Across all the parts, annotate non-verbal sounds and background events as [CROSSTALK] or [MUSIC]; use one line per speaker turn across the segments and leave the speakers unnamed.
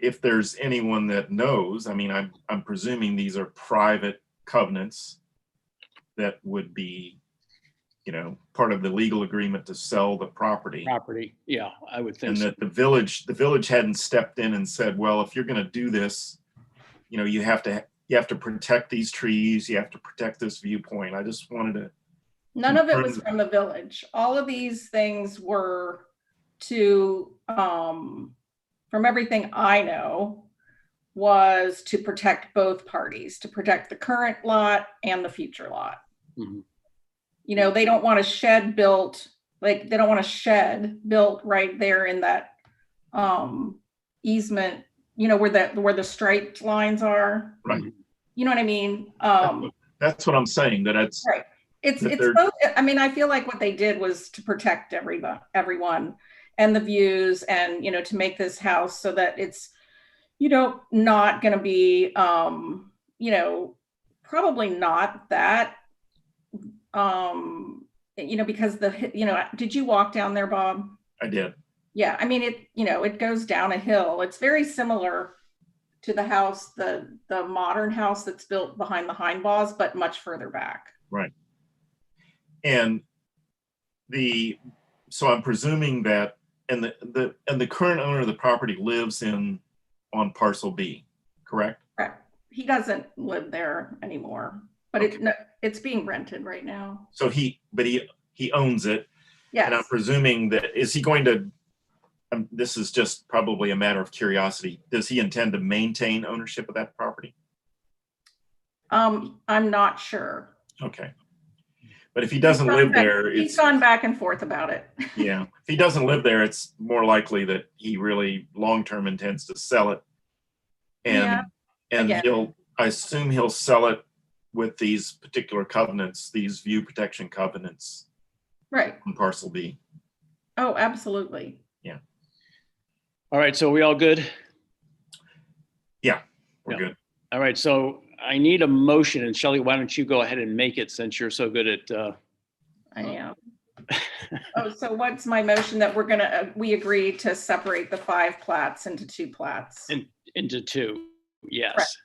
if there's anyone that knows, I mean, I'm, I'm presuming these are private covenants that would be, you know, part of the legal agreement to sell the property.
property. Yeah, I would think
And
so.
that the village, the village hadn't stepped in and said, well, if you're gonna do this, you know, you have to, you have to protect these trees, you have to protect this viewpoint. I just wanted to,
None of it was
Confirmed.
from the village. All of these things were to, um, from everything I know, was to protect both parties, to protect the current lot and the future lot.
Mhm.
You know, they don't want a shed built, like, they don't want a shed built right there in that, um, easement, you know, where that, where the striped lines are.
Mm-hmm.
Right.
You know what I mean? Um,
that's what I'm saying, that it's,
it's
that
it's
they're-
both. I mean, I feel like what they did was to protect everyone, everyone, and the views, and you know, to make this house so that it's, you know, not going to be, um, you know, probably not that, um, you know, because the you know, did you walk down there, Bob?
I did.
Yeah, I mean, it, you know, it goes down a hill. It's very similar to the house, the, the modern house that's built behind the Heinbaughs, but much further back.
And the, so I'm presuming that, and the, the, and the current owner of the property lives in, on parcel B, correct?
Correct. He doesn't live there anymore, but it, no, it's being rented right now.
So he, but he, he owns it. And I'm
Yes,
presuming that, is he going to, um, this is just probably a matter of curiosity. Does he intend to maintain ownership of that property?
um, I'm not sure.
Okay. But if he doesn't
gone
live
back-
there,
He's
it's,
gone back and forth about it.
yeah, if he doesn't live there, it's more likely that he really long-term intends to sell it.
Yeah,
And, and
get it.
he'll, I assume he'll sell it with these particular covenants, these view protection covenants
[LAUGHS] Right.
on parcel B.
Oh, absolutely.
All right, so we all good?
We're
Yeah.
good.
All right, so I need a motion, and Shelley, why don't you go ahead and make it since you're so good at, uh,
[LAUGHS]
I am. Oh, so what's my motion that we're gonna, uh, we agree to separate the five plats into two plats?
In- into two? Yes,
Correct.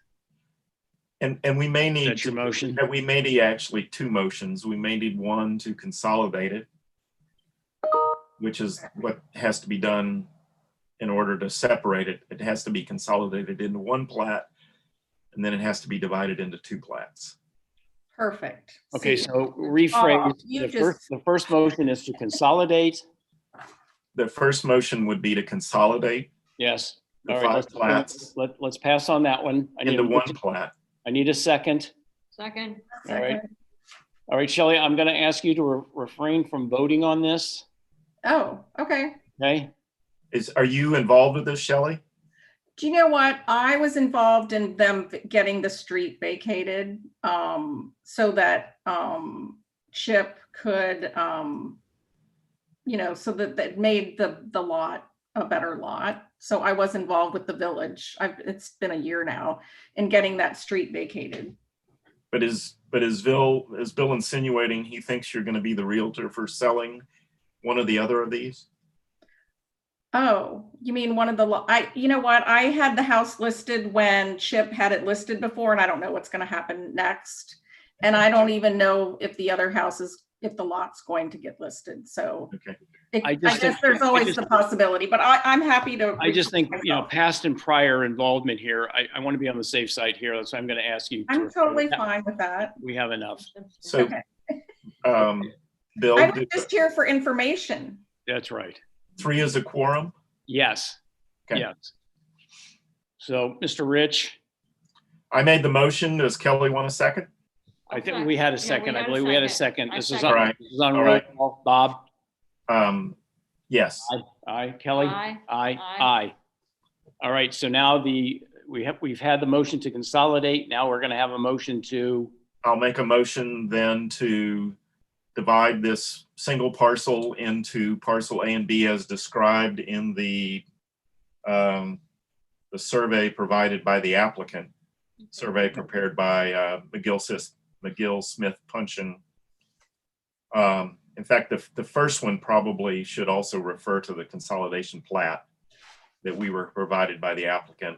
And, and we may need
that's
to
your motion.
that we may need actually two motions. We may need one to consolidate it, which is what has to be done in order to separate it. It has to be consolidated into one plat, and then it has to be divided into two plats.
Perfect.
Okay,
See,
so
Oh,
rephrase,
you
the
just-
first, the first motion is to consolidate,
The first motion would be to consolidate
yes.
the
All right,
five
let's,
plats
let, let's pass on that one. I need,
into
a
one
motion-
plat.
I need a second.
Second,
All right,
second.
all right, Shelley, I'm gonna ask you to re- refrain from voting on this,
Oh, okay.
okay?
Is, are you involved with this, Shelley?
Do you know what? I was involved in them v- getting the street vacated, um, so that, um, Chip could, um, you know, so that, that made the, the lot a better lot. So I was involved with the village. I've, it's been a year now in getting that street vacated.
But is, but is Bill, is Bill insinuating he thinks you're gonna be the realtor for selling one or the other of these?
Oh, you mean one of the, lo- I, you know what? I had the house listed when Chip had it listed before and I don't know what's gonna happen next. And I don't even know if the other house is, if the lot's going to get listed, so.
Okay.
it-
I
I
just
guess
think-
there's
I
always
just-
the possibility, but I, I'm happy to.
I just think, you know, past and prior involvement here, I, I want to be on the safe side here, so I'm gonna ask you. to
I'm
refrain.
totally
That-
fine with that.
We have enough.
So,
Okay.
um, Bill,
I was
do-
just here for information.
That's right.
three is a quorum?
Yes.
Okay.
Yes. So, Mr. Rich,
I made the motion. Does Kelly want a second?
I think
Okay.
we had a
Yeah, we
second. I
had a
believe we had a
second.
second.
I
This is
second.
on,
Alright.
this is on roll
Alright.
call. Bob,
Um, yes,
aye. Kelly, aye,
Aye.
aye. All right, so now the, we have, we've had the motion to consolidate. Now we're going to have a motion to,
I'll make a motion then to divide this single parcel into parcel A and B as described in the um, the survey provided by the applicant, survey prepared by uh, McGill Sis, McGill Smith Puncheon. Um, in fact, the, the first one probably should also refer to the consolidation plat that we were provided by the applicant.